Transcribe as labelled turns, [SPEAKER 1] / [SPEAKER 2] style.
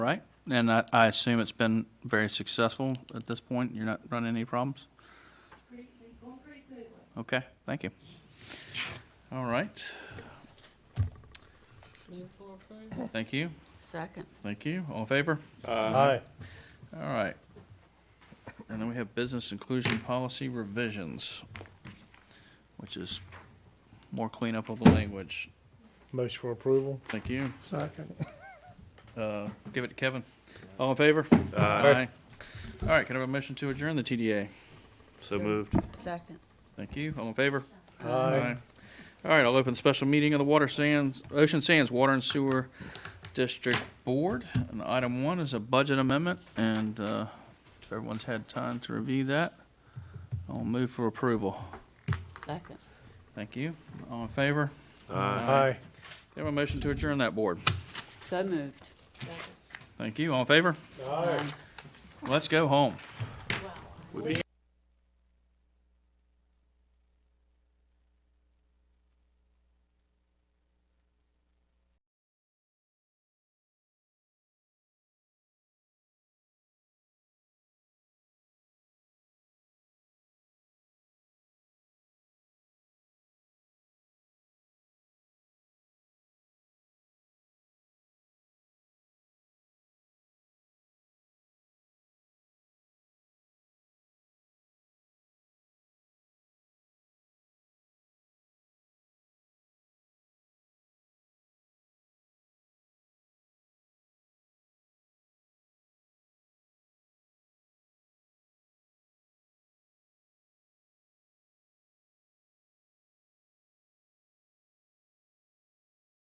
[SPEAKER 1] and I, I assume it's been very successful at this point? You're not running any problems?
[SPEAKER 2] Pretty, pretty- going pretty smoothly.
[SPEAKER 1] Okay, thank you. All right,
[SPEAKER 3] Move for approval.
[SPEAKER 1] thank you,
[SPEAKER 4] Second.
[SPEAKER 1] thank you. All in favor?
[SPEAKER 5] Aye.
[SPEAKER 1] All right. And then we have business inclusion policy revisions, which is more cleanup of the language.
[SPEAKER 5] Motion for approval.
[SPEAKER 1] Thank you.
[SPEAKER 5] Second.
[SPEAKER 1] Uh, Give it to Kevin. All in favor? Aye. All right, can I have a motion to adjourn the TDA?
[SPEAKER 6] So moved.
[SPEAKER 4] Second.
[SPEAKER 1] Thank you. All in favor?
[SPEAKER 5] Aye.
[SPEAKER 1] All right, I'll open the special meeting of the Water Sands, Ocean Sands Water and Sewer District Board. And item one is a budget amendment, and uh, if everyone's had time to review that, I'll move for approval.
[SPEAKER 4] Second.
[SPEAKER 1] Thank you. All in favor?
[SPEAKER 5] Aye.
[SPEAKER 1] Can I have a motion to adjourn that board?
[SPEAKER 4] So moved.
[SPEAKER 1] Thank you. All in favor?
[SPEAKER 5] Aye.
[SPEAKER 1] Let's go home.
[SPEAKER 6] Would be